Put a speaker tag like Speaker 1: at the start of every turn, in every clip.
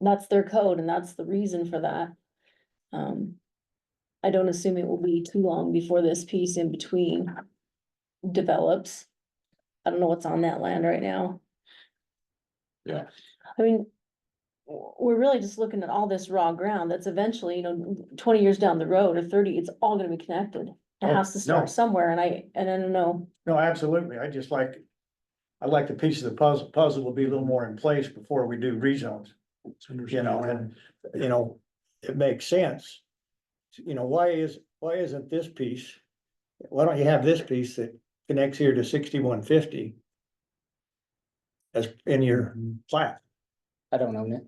Speaker 1: that's their code and that's the reason for that. Um, I don't assume it will be too long before this piece in between develops. I don't know what's on that land right now.
Speaker 2: Yeah.
Speaker 1: I mean, w- we're really just looking at all this raw ground that's eventually, you know, twenty years down the road or thirty, it's all gonna be connected. It
Speaker 3: Oh,
Speaker 1: has to
Speaker 3: no.
Speaker 1: start somewhere and I, and I don't know.
Speaker 3: No, absolutely. I just like, I like the piece of the puzzle, puzzle will be a little more in place before we do rezones, you know, and, you know, it makes sense. You know, why is, why isn't this piece? Why don't you have this piece that connects here to sixty-one fifty? As in your plat?
Speaker 4: I don't own it.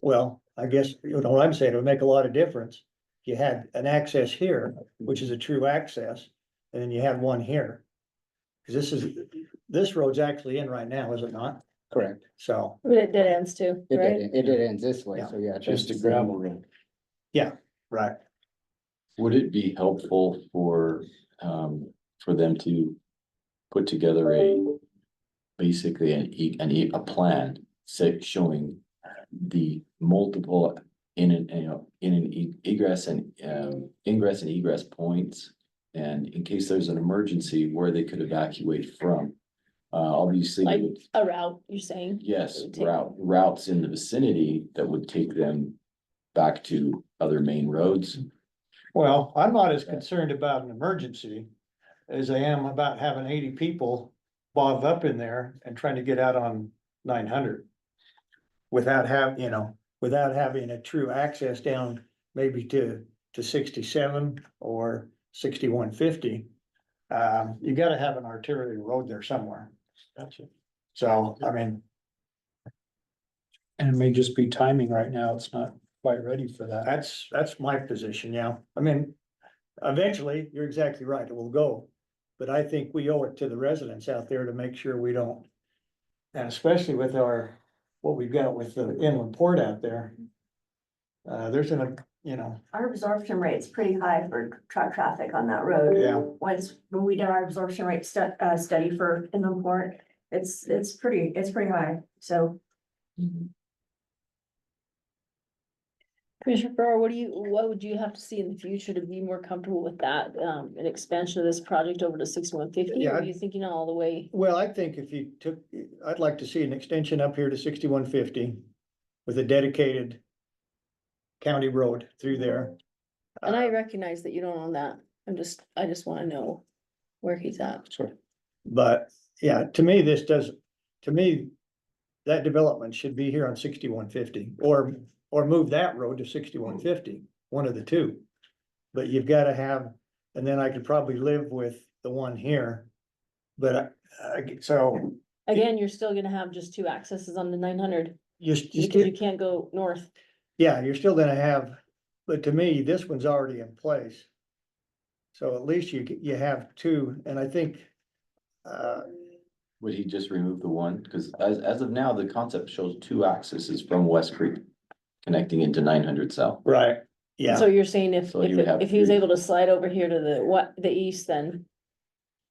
Speaker 3: Well, I guess, you know what I'm saying, it would make a lot of difference. You had an access here, which is a true access, and then you had one here. Cause this is, this road's actually in right now, is it not?
Speaker 4: Correct.
Speaker 3: So,
Speaker 1: But it dead ends too,
Speaker 4: It
Speaker 1: right?
Speaker 4: did, it did end this way,
Speaker 3: Yeah.
Speaker 4: so yeah.
Speaker 2: Just a
Speaker 4: that's-
Speaker 2: gravel road.
Speaker 3: right,
Speaker 2: Would it be helpful for, um, for them to put together a, basically an e, an e, a plan, say, showing the multiple in an, you know, in an e- egress and, um, ingress and egress points, and in case there's an emergency, where they could evacuate from. Uh, obviously,
Speaker 1: Like-
Speaker 2: with-
Speaker 1: A route, you're saying?
Speaker 2: yes,
Speaker 1: Take-
Speaker 2: route, routes in the vicinity that would take them back to other main roads.
Speaker 3: well, I'm not as concerned about an emergency. As I am about having eighty people bob up in there and trying to get out on nine hundred. Without have, you know, without having a true access down maybe to, to sixty-seven or sixty-one fifty. Um, you gotta have an arterial road there somewhere. Gotcha. So, I mean,
Speaker 5: And it may just be timing right now, it's not quite ready for that.
Speaker 3: That's, that's my position, yeah. I mean, eventually, you're exactly right, it will go. But I think we owe it to the residents out there to make sure we don't. And especially with our, what we've got with the inland port out there. Uh, there's an, you know,
Speaker 6: Our absorption rate's pretty high for truck traffic on that road.
Speaker 3: Yeah.
Speaker 6: Once, when we did our absorption rate stu- uh, study for inland port, it's, it's pretty, it's pretty high, so.
Speaker 1: Commissioner Farrar, what do you, what would you have to see in the future to be more comfortable with that, um, an expansion of this project over to sixty-one fifty?
Speaker 3: Yeah,
Speaker 1: Or are
Speaker 3: I-
Speaker 1: you thinking all the way?
Speaker 3: well, I think if you took, I'd like to see an extension up here to sixty-one fifty with a dedicated county road through there.
Speaker 1: And I
Speaker 3: Uh,
Speaker 1: recognize that you don't own that. I'm just, I just wanna know where he's at.
Speaker 4: Sure.
Speaker 3: But, yeah, to me, this does, to me, that development should be here on sixty-one fifty, or, or move that road to sixty-one fifty, one of the two. But you've gotta have, and then I could probably live with the one here. But I, I get- so,
Speaker 1: Again, you're still gonna have just two accesses on the nine hundred,
Speaker 3: you s- you
Speaker 1: because you
Speaker 3: still,
Speaker 1: can't go north.
Speaker 3: yeah, you're still gonna have, but to me, this one's already in place. So at least you, you have two, and I think, uh,
Speaker 2: Would he just remove the one? Cause as, as of now, the concept shows two accesses from West Creek connecting into nine hundred south.
Speaker 3: right, yeah.
Speaker 1: So you're saying if,
Speaker 2: So
Speaker 1: if,
Speaker 2: you would have
Speaker 1: if he was
Speaker 2: three.
Speaker 1: able to slide over here to the, what, the east, then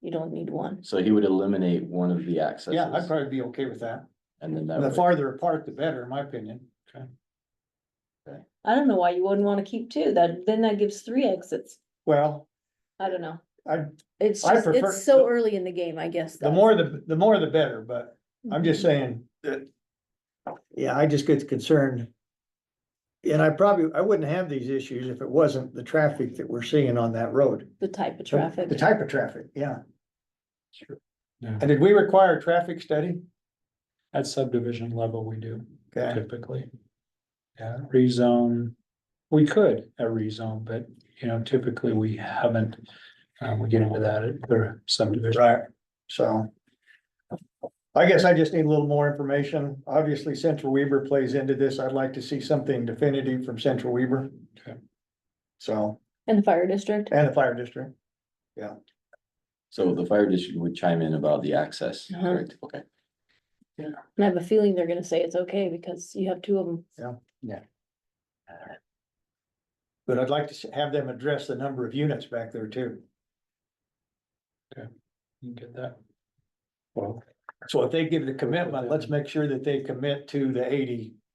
Speaker 1: you don't need one.
Speaker 2: So he would eliminate one of the
Speaker 3: Yeah, I'd
Speaker 2: accesses
Speaker 3: probably be okay with that.
Speaker 2: and then
Speaker 3: The
Speaker 2: that would,
Speaker 3: farther apart, the better, in my opinion.
Speaker 1: I don't know why you wouldn't wanna keep two. That, then that gives three exits.
Speaker 3: Well,
Speaker 1: I don't know.
Speaker 3: I,
Speaker 1: It's
Speaker 3: I
Speaker 1: just,
Speaker 3: prefer-
Speaker 1: it's so early in the game, I guess.
Speaker 3: the
Speaker 1: that's-
Speaker 3: more the, the more the better, but I'm just saying that. Yeah, I just get concerned. And I probably, I wouldn't have these issues if it wasn't the traffic that we're seeing on that road.
Speaker 1: The type of
Speaker 3: The
Speaker 1: traffic.
Speaker 3: type of traffic, yeah.
Speaker 5: Sure. Yeah.
Speaker 3: And did we require a traffic study?
Speaker 5: At subdivision level, we do
Speaker 3: Okay,
Speaker 5: typically. Yeah, rezone, we could at rezone, but you know, typically we haven't. Um, we get into that at the subdivision.
Speaker 3: right, so. I guess I just need a little more information. Obviously, Central Weaver plays into this. I'd like to see something definitive from Central Weaver.
Speaker 5: Okay.
Speaker 3: So,
Speaker 1: And the fire district.
Speaker 3: and the fire district.
Speaker 2: so the fire district would chime in about the access,
Speaker 1: Uh-huh.
Speaker 2: correct? Okay.
Speaker 1: And I have a feeling they're gonna say it's okay because you have two of them.
Speaker 3: But I'd like to s- have them address the number of units back there too.
Speaker 5: You get that? Well.
Speaker 3: So if they give the commitment, let's make sure that they commit to the eighty